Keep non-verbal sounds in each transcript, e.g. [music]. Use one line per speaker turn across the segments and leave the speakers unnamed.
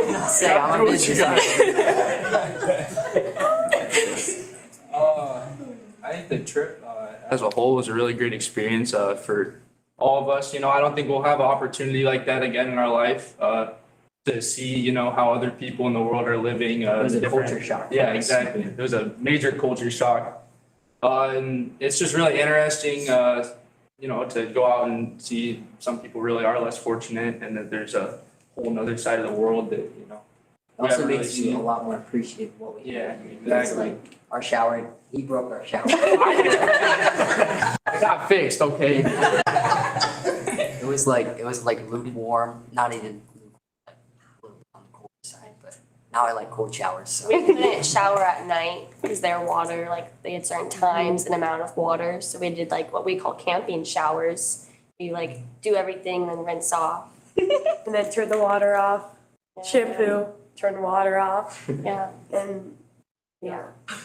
did not say, all I
What
did
you
was
got?
say.
Uh, I think the trip uh, as a whole was a really great experience uh, for all of us. You know, I don't think we'll have an opportunity like that again in our life uh, to see, you know, how other people in the world are living. Uh,
It was a
different-
culture shock for
Yeah,
us.
exactly. It was a major culture shock. Uh, and it's just really interesting, uh, you know, to go out and see some people really are less fortunate and that there's a whole nother side of the world that, you know, we
Also
haven't really
makes you a
seen.
lot more appreciative of what we
Yeah,
have. It's
exactly.
like our shower, he broke our shower.
[laughs]
[laughs]
[laughs] I got fixed, okay?
It was like, it was like lukewarm, not even lukewarm, like a little on the cold side, but now I like cold showers, so.
We couldn't shower at night because their water, like they had certain times and amount of water, so we did like what we call camping showers. You like do everything and rinse off.
and then turn the water off,
Yeah.
shampoo, turn the water off,
Yeah,
and
yeah,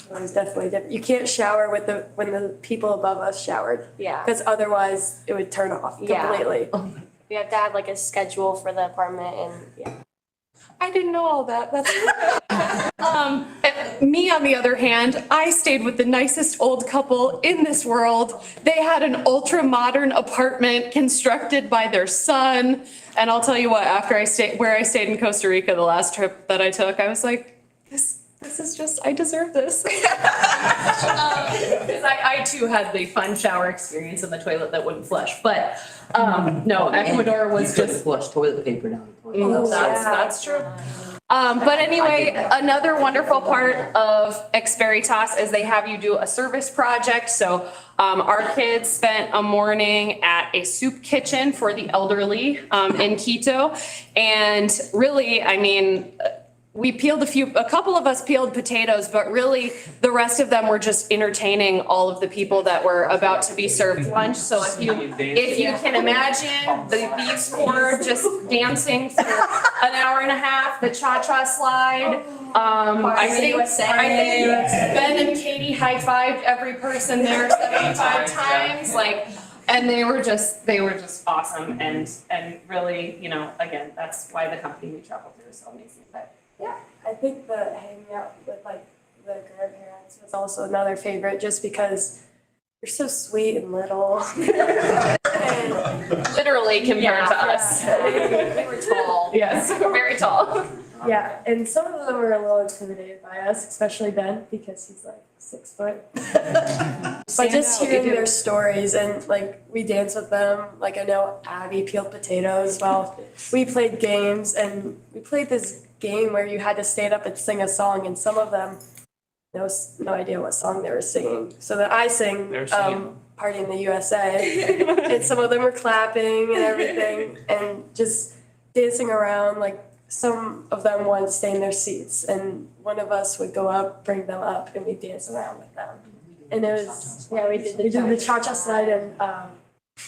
it was definitely different. You can't shower with the when the people above us showered
yeah.
because otherwise it would turn off
Yeah.
completely.
We have to have like a schedule for the apartment and yeah.
I didn't know all that. That's [laughs] um, me, on the other hand, I stayed with the nicest old couple in this world. They had an ultra modern apartment constructed by their son. And I'll tell you what, after I stayed where I stayed in Costa Rica the last trip that I took, I was like, this this is just I deserve this. [laughs] Um,
Because I, I too had the fun shower experience in the toilet that wouldn't flush, but, um, no, Ecuador was
You couldn't
just.
Flush toilet paper down the
Oh,
toilet. That
Ooh,
was so-
That's, that's true.
Um, but anyway,
that.
another wonderful part of Experitas is they have you do a service project. So um, our kids spent a morning at a soup kitchen for the elderly um, in Quito. And really, I mean, we peeled a few, a couple of us peeled potatoes, but really the rest of them were just entertaining all of the people that were about to be served lunch. So if you if you can imagine, the, these four just dancing for an hour and a half, the cha-cha slide.
Oh,
Um, I
Party
think, I
USA.
think Ben and Katie high-fived every person there seventy-five times, like, and they were just, they were just awesome and, and really, you know, again, that's why the company we traveled through is so amazing, but.
I think the hanging out with like the grandparents was also another favorite, just because they're so sweet and little. [laughs] and,
Literally compared to
Yeah.
us. We were tall. Yes, we were very tall.
yeah, and some of them were a little intimidated by us, especially Ben because he's like six foot. [laughs] But just hearing their stories and like we danced with them, like I know Abby peeled potatoes while we played games and we played this game where you had to stand up and sing a song and some of them no s- no idea what song they were singing. So that I sing
They were singing-
um Party in the USA and some of them were clapping and everything and just dancing around like some of them wanted to stay in their seats and one of us would go up, bring them up and we'd dance around with them. And it was, yeah, we did the, we did the cha-cha slide and, um.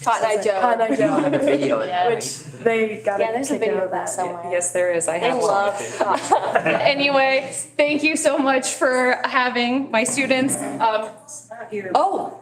Hot Night Joe.
Hot Night
I'll have a
[laughs]
Joe,
video of that.
which they got
Yeah,
a
there's a
kick
video
out
of that
[laughs]
somewhere.
Yes, there is, I
They
have one.
love hot. [laughs]
[laughs] Anyway, thank you so much for having my students. Um, oh,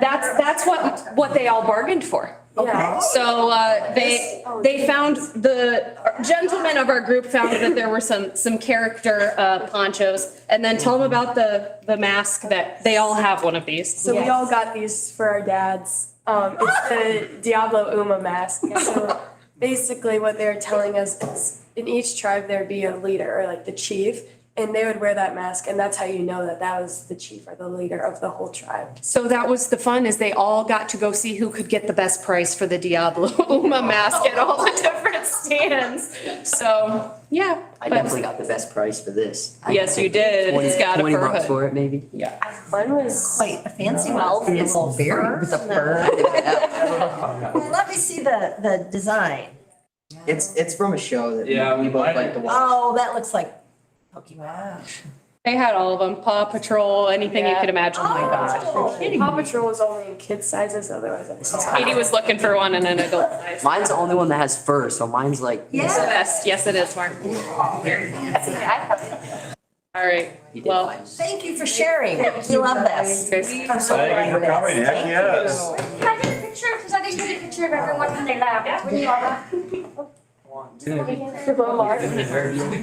that's, that's what, what they all bargained for.
Yeah,
So uh, they, they found, the gentlemen of our group found that there were some, some character uh, ponchos. And then tell them about the, the mask that, they all have one of these.
so we all got these for our dads. Um, it's the
[laughs]
Diablo Uma mask. So basically what they were telling us is in each tribe there'd be a leader or like the chief and they would wear that mask and that's how you know that that was the chief or the leader of the whole tribe.
So that was the fun, is they all got to go see who could get the best price for the Diablo [laughs] Uma mask at all the different stands. So, yeah.
I
but-
definitely got the best price for this. I
Yes, you
paid
did.
20
It's got a
20
fur
bucks
hood.
for it, maybe? Yeah.
One was
Wait, a fancy
Well,
well,
it's
It's very, with the fur.
[laughs]
Well, let me see the, the design.
It's, it's from a show that we-
Yeah,
we both
I-
like to watch.
Oh, that looks like Pokemon.
They had all of them, Paw Patrol, anything you
Yeah. Oh
could imagine.
my
Oh, Paw Patrol was only in kid sizes, otherwise I was.
Katie was looking for one in an adult size.
Mine's the only one that has fur, so mine's like.
It's the
Yeah.
best, yes it is, Mark. All right,
You did
well,
fine.
Thank you for sharing. We love this.
guys,
I'm so glad of this. Thank
[laughs]
you.
yes.
Can I get a picture? Because I didn't get a picture of everyone when they left. When you all left.
Mark.